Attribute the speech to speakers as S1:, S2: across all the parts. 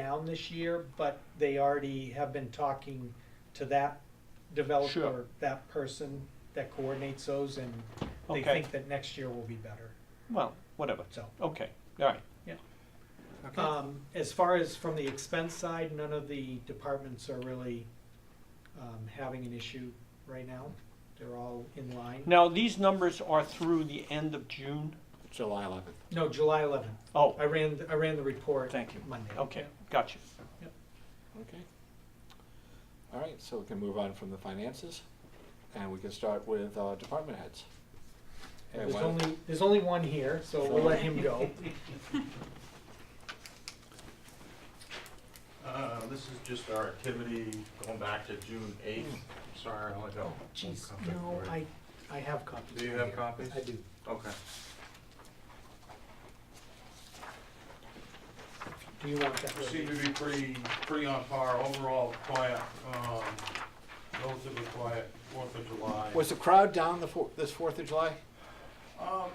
S1: down this year, but they already have been talking to that developer,
S2: Sure.
S1: that person that coordinates those, and they
S2: Okay.
S1: think that next year will be better,
S2: Well, whatever.
S1: so.
S2: Okay, all right.
S3: Okay,
S1: Um, as far as from the expense side, none of the departments are really, um, having an issue right now. They're all in line.
S2: Now, these numbers are through the end of June?
S3: July eleventh.
S1: No, July eleventh.
S2: Oh,
S1: I ran, I ran the report
S2: thank you.
S1: Monday.
S2: Okay, gotcha.
S3: Okay. All right, so we can move on from the finances, and we can start with uh, department heads.
S1: And
S3: Okay,
S1: There's
S3: why don't-
S1: only, there's only one here, so we'll let him go.
S4: Uh, This is just our activity going back to June 8th.
S3: Hmm.
S4: Sorry, I only got one
S1: Jeez,
S4: copy
S1: no,
S4: for you.
S1: I, I have copies.
S4: Do you
S1: right
S4: have
S1: here.
S4: copies?
S1: I do.
S4: Okay.
S1: Do you want that?
S4: Seem to be pretty, pretty on par, overall quiet, um, relatively quiet, Fourth of July.
S3: Was the crowd down the four, this Fourth of July?
S4: Um,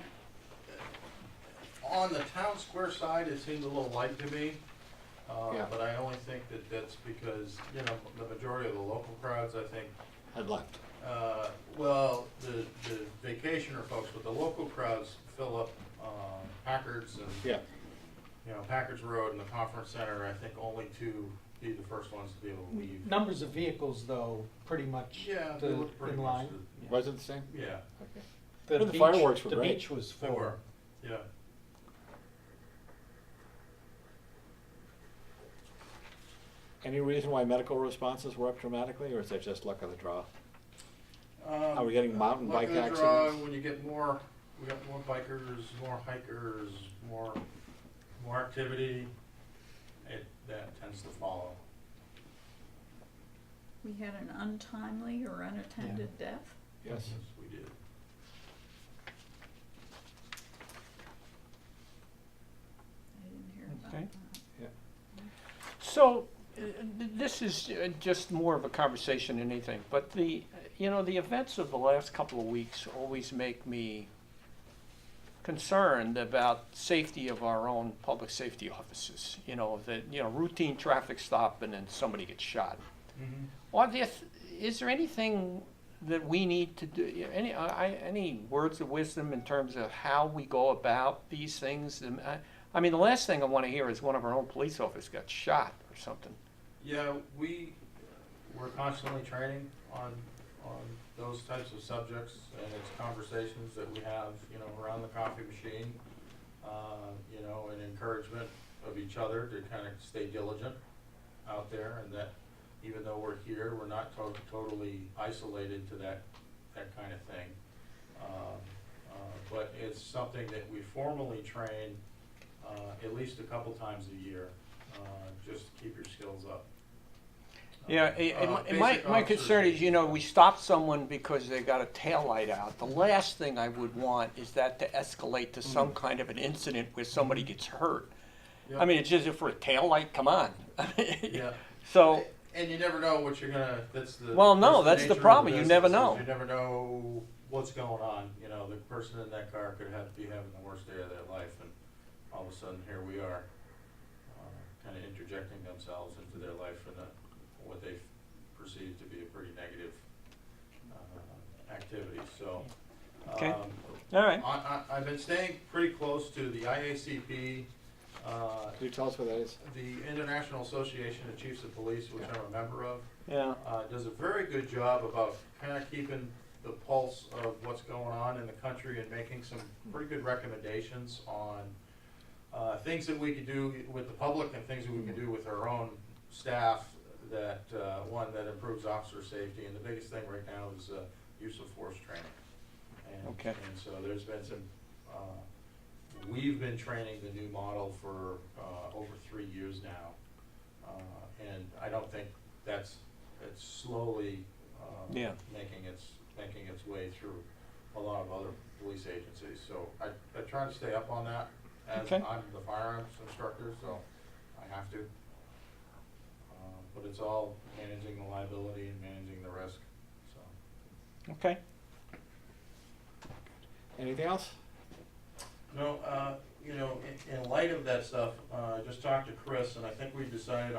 S4: On the town square side, it seemed a little light to me. uh,
S3: Yeah.
S4: But I only think that that's because, you know, the majority of the local crowds, I think,
S3: Had left.
S4: Uh, Well, the, the vacationer folks, but the local crowds fill up um, Packards and,
S3: Yeah.
S4: you know, Packards Road and the Conference Center, I think only to be the first ones to be able to leave.
S1: Numbers of vehicles, though, pretty much.
S4: Yeah, they
S1: the-
S4: look pretty
S1: in
S4: much,
S1: line.
S4: the-
S3: Was it the same?
S4: yeah,
S3: Okay.
S1: The
S3: The
S1: beach-
S3: fireworks were
S1: The
S3: great.
S1: beach was
S4: they were,
S1: full.
S4: yeah.
S3: Any reason why medical responses were up dramatically, or is that just luck of the draw?
S4: Are
S3: we getting mountain bike accidents?
S4: When you get more, we got more bikers, more hikers, more, more activity, it, that tends to follow.
S5: We had an untimely or unattended death.
S3: Yes.
S4: We did.
S5: I didn't hear about
S2: Okay.
S5: that.
S2: So, uh, this is uh, just more of a conversation than anything, but the, you know, the events of the last couple of weeks always make me concerned about safety of our own public safety officers, you know, that, you know, routine traffic stop and then somebody gets shot.
S4: Mm-hmm.
S2: Are there, th- is there anything that we need to do, any, uh, I, I- any words of wisdom in terms of how we go about these things? And I- I mean, the last thing I want to hear is one of our own police officers got shot or something.
S4: Yeah, we, we're constantly training on, on those types of subjects, and it's conversations that we have, you know, around the coffee machine, uh, you know, and encouragement of each other to kind of stay diligent out there, and that even though we're here, we're not to- totally isolated to that, that kind of thing. Um, uh, But it's something that we formally train uh, at least a couple times a year, uh, just to keep your skills up.
S2: Yeah,
S4: Uh,
S2: it- it-
S4: uh,
S2: my- my,
S4: basic
S2: my
S4: officer
S2: concern is,
S4: safety.
S2: you know, we stop someone because they got a taillight out. The last thing I would want is that to escalate to some kind of an incident where somebody gets hurt.
S4: Mm. Yeah.
S2: I mean, it's just if for a taillight, come on.
S4: Yeah.
S2: So,
S4: And you never know what you're gonna, that's the.
S2: Well, no, that's the
S4: nature of
S2: problem. You
S4: business,
S2: never
S4: is
S2: know.
S4: You never know what's going on, you know, the person in that car could have, be having the worst day of their life, and all of a sudden, here we are, kind of interjecting themselves into their life in a, what they perceive to be a pretty negative, uh, activity, so.
S2: Okay.
S4: um,
S2: all right.
S4: I, I, I've been staying pretty close to the IACP, uh,
S3: Could you tell us what that is?
S4: the International Association of Chiefs of Police, which I'm a member of,
S2: Yeah.
S4: uh, does a very good job about kind of keeping the pulse of what's going on in the country and making some pretty good recommendations on uh, things that we could do with the public and things that we can do with our own staff that, uh, one, that improves officer safety, and the biggest thing right now is uh, use of force training. And-
S2: Okay.
S4: And so there's been some, uh, we've been training the new model for uh, over three years now. Uh, And I don't think that's, it's slowly um,
S2: Yeah.
S4: making its, making its way through a lot of other police agencies. So I, I try to stay up on that as
S2: Okay.
S4: I'm the firearms instructor, so I have to. Uh, But it's all managing the liability and managing the risk, so.
S2: Okay.
S3: Anything else?
S4: No, uh, you know, in, in light of that stuff, uh, I just talked to Chris and I think we decided